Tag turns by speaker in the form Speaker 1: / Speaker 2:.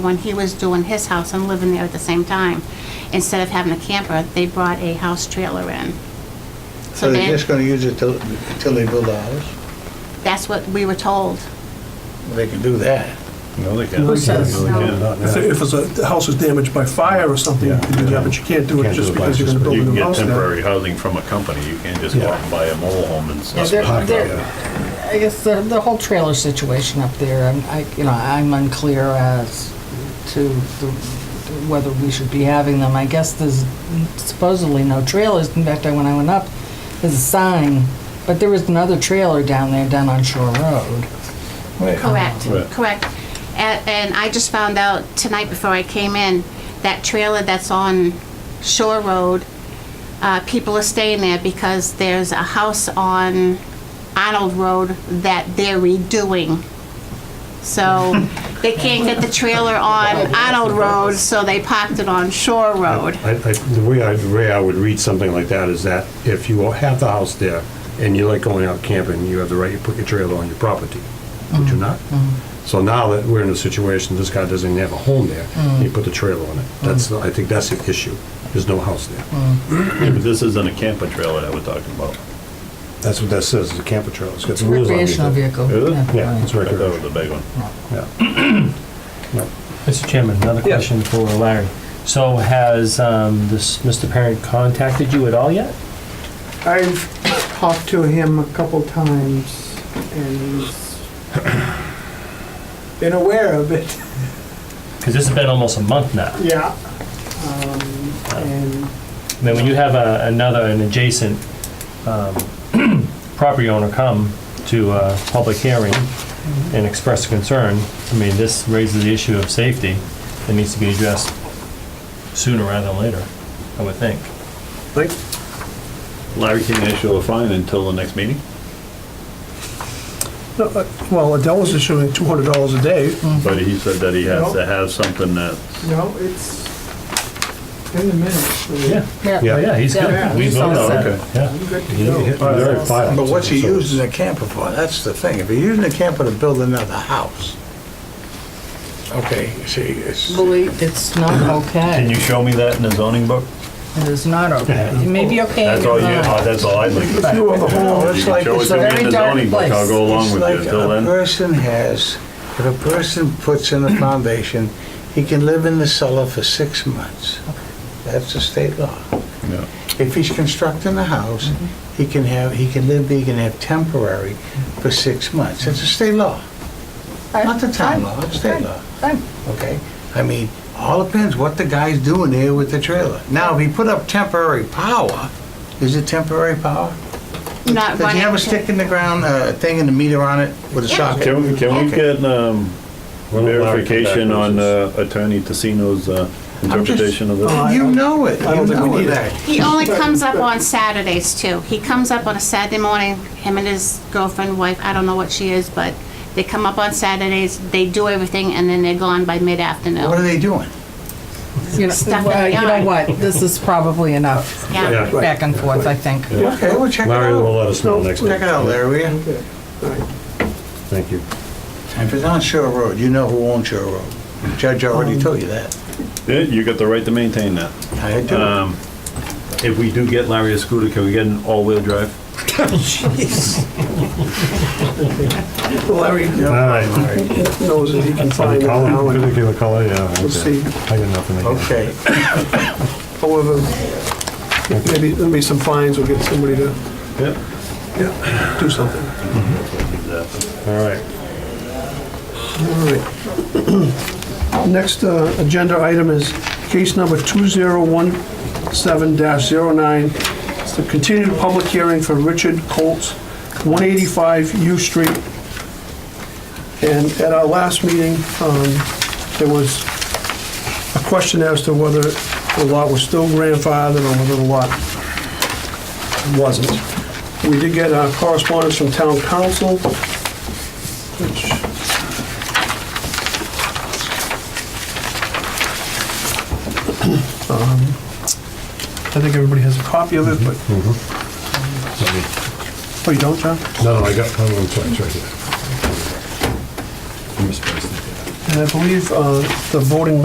Speaker 1: when he was doing his house and living there at the same time. Instead of having a camper, they brought a house trailer in.
Speaker 2: So they're
Speaker 1: then-
Speaker 2: just gonna use it till, till they build a house?
Speaker 1: That's what we were told.
Speaker 2: Well, They can do that.
Speaker 3: No, they can't.
Speaker 4: Who says
Speaker 3: No, they
Speaker 1: no?
Speaker 3: can't. Not now.
Speaker 4: If, if it's a, the house is damaged by fire or something, you can do that, but you can't do it
Speaker 3: Can't
Speaker 4: just
Speaker 3: by
Speaker 4: because you're gonna
Speaker 3: just-
Speaker 4: build
Speaker 3: You
Speaker 4: a
Speaker 3: can
Speaker 4: new
Speaker 3: get
Speaker 4: house there.
Speaker 3: temporary housing from a company, you can't just go out and buy a mobile home and
Speaker 5: Yeah,
Speaker 3: stuff.
Speaker 5: they're- they're- I guess the, the whole trailer situation up there, I'm, I, you know, I'm unclear as to the, whether we should be having them. I guess there's supposedly no trailers. In fact, I- when I went up, there's a sign, but there was another trailer down there down on Shore Road.
Speaker 1: Correct,
Speaker 3: Right.
Speaker 1: correct. And, and I just found out tonight before I came in, that trailer that's on Shore Road, uh, people are staying there because there's a house on Arnold Road that they're redoing. So they can't get the trailer on Arnold Road, so they parked it on Shore Road.
Speaker 6: I, I, the way I, the way I would read something like that is that if you have the house there and you like going out camping, you have the right to put your trailer on your property, would
Speaker 5: Mm-hmm.
Speaker 6: you not? So now that we're in a situation, this guy doesn't have a home there, he
Speaker 5: Mm.
Speaker 6: put the trailer on it. That's, the- I think that's the issue. There's no house there.
Speaker 5: Mm.
Speaker 3: Yeah, but This isn't a camper trailer that we're talking about.
Speaker 6: That's what that says, is a camper trailer. It's got
Speaker 5: It's
Speaker 6: some
Speaker 5: a
Speaker 6: wheels on it.
Speaker 5: recreational vehicle.
Speaker 3: Is it?
Speaker 6: Yeah, it's
Speaker 3: I thought it
Speaker 6: recreational.
Speaker 3: was a big one.
Speaker 6: Yeah.
Speaker 7: Mr. Chairman, another
Speaker 4: Yeah.
Speaker 7: question for Larry. So has um, this Mr. Parent contacted you at all yet?
Speaker 8: I've talked to him a couple times and he's been aware of it.
Speaker 7: Because this has been almost a month now.
Speaker 8: Yeah. Um, and
Speaker 7: I mean, when you have a- another, an adjacent um, property owner come to a public hearing and express concern, I mean, this raises the issue of safety that needs to be addressed sooner rather than later, I would think.
Speaker 3: Larry can issue a fine until the next meeting,
Speaker 4: No, uh, Well, Adele's issuing two hundred dollars a day.
Speaker 3: but he said that he has
Speaker 8: No.
Speaker 3: to have something that,
Speaker 8: no, it's in the minutes. so
Speaker 7: Yeah,
Speaker 6: Yeah.
Speaker 7: Oh, yeah, he's good.
Speaker 5: Yeah,
Speaker 7: We
Speaker 5: he's
Speaker 7: voted
Speaker 5: all
Speaker 7: on it.
Speaker 3: set.
Speaker 7: Yeah.
Speaker 8: I'm good to
Speaker 6: You
Speaker 8: go.
Speaker 6: hit- you're at five.
Speaker 2: But what's he
Speaker 6: So-
Speaker 2: using a camper for? That's the thing. If you're using a camper to build another house, okay, see, it's,
Speaker 5: Believe, it's not
Speaker 3: can
Speaker 5: okay.
Speaker 3: you show me that in the zoning book?
Speaker 5: It is not okay. It may be okay.
Speaker 3: That's all you,
Speaker 5: but-
Speaker 3: oh, that's all I'd like to see.
Speaker 2: you own the
Speaker 3: If
Speaker 2: home,
Speaker 3: you
Speaker 2: it's
Speaker 3: can
Speaker 2: like,
Speaker 3: show it
Speaker 2: it's
Speaker 3: to
Speaker 2: a
Speaker 3: me in
Speaker 5: very
Speaker 3: the
Speaker 5: dark
Speaker 3: zoning book, I'll
Speaker 5: place.
Speaker 3: go along
Speaker 2: It's
Speaker 3: with you
Speaker 2: like
Speaker 3: until
Speaker 2: A
Speaker 3: then.
Speaker 2: person has, if a person puts in a foundation, he can live in the cellar for six months. That's the state law.
Speaker 3: Yeah.
Speaker 2: If he's constructing a house, he can have, he can live, there, he can have temporary for six months. It's a state law. Not the town law, it's state law,
Speaker 5: I'm-
Speaker 2: okay? I mean, all depends what the guy's doing there with the trailer. Now, if he put up temporary power, is it temporary power?
Speaker 1: Not
Speaker 2: Does he
Speaker 1: running
Speaker 2: have a
Speaker 1: to-
Speaker 2: stick in the ground, a thing in the meter on it with a
Speaker 1: Yeah.
Speaker 2: socket?
Speaker 3: Can we, can we get, um,
Speaker 6: Well, Larry,
Speaker 3: verification on uh, Attorney Tassino's uh,
Speaker 2: I'm just- Oh,
Speaker 3: interpretation of this?
Speaker 2: You know it,
Speaker 4: I
Speaker 2: you
Speaker 4: don't think we
Speaker 2: know
Speaker 4: need it.
Speaker 2: that.
Speaker 1: He only comes up on Saturdays too. He comes up on a Saturday morning, him and his girlfriend, wife, I don't know what she is, but they come up on Saturdays, they do everything, and then they're gone by
Speaker 2: What are
Speaker 1: mid-afternoon.
Speaker 2: they doing?
Speaker 5: You know,
Speaker 1: Stuff in
Speaker 5: well,
Speaker 1: the
Speaker 5: you
Speaker 1: eye.
Speaker 5: know what? This is probably enough
Speaker 1: Yeah.
Speaker 6: Yeah.
Speaker 5: back and forth, I think.
Speaker 2: Okay, we'll check it
Speaker 6: Larry will
Speaker 2: out.
Speaker 6: let us know next
Speaker 2: Check it
Speaker 6: week.
Speaker 2: out, Larry, will you?
Speaker 8: Okay, all right.
Speaker 6: Thank you.
Speaker 2: If it's on Shore Road, you know who owns Shore Road. Judge already told you that.
Speaker 3: Yeah, you got the right to maintain that.
Speaker 2: I do.
Speaker 3: Um, If we do get Larry a scooter, can we get an all-wheel drive?
Speaker 4: Larry
Speaker 6: All right.
Speaker 4: knows that he can
Speaker 6: Are
Speaker 4: find
Speaker 6: they
Speaker 4: it now.
Speaker 6: color,
Speaker 4: and
Speaker 6: particular color, yeah. okay.
Speaker 4: see.
Speaker 6: I got nothing against it.
Speaker 2: Okay,
Speaker 4: However, maybe, there'll be some fines, we'll get somebody to
Speaker 3: Yep.
Speaker 4: do something.
Speaker 6: All right.
Speaker 4: All right. Next uh, agenda item is case number 2017-09. It's the continued public hearing for Richard Colts, 185 U Street. And at our last meeting, um, there was a question as to whether the lot was still grandfathered or whether the lot wasn't. We did get uh, correspondence from town council, which Um, I think everybody has a copy of it, but... Oh, you don't, John?
Speaker 6: No, no, I got, I'm sorry, it's right here.
Speaker 4: And I believe uh, the voting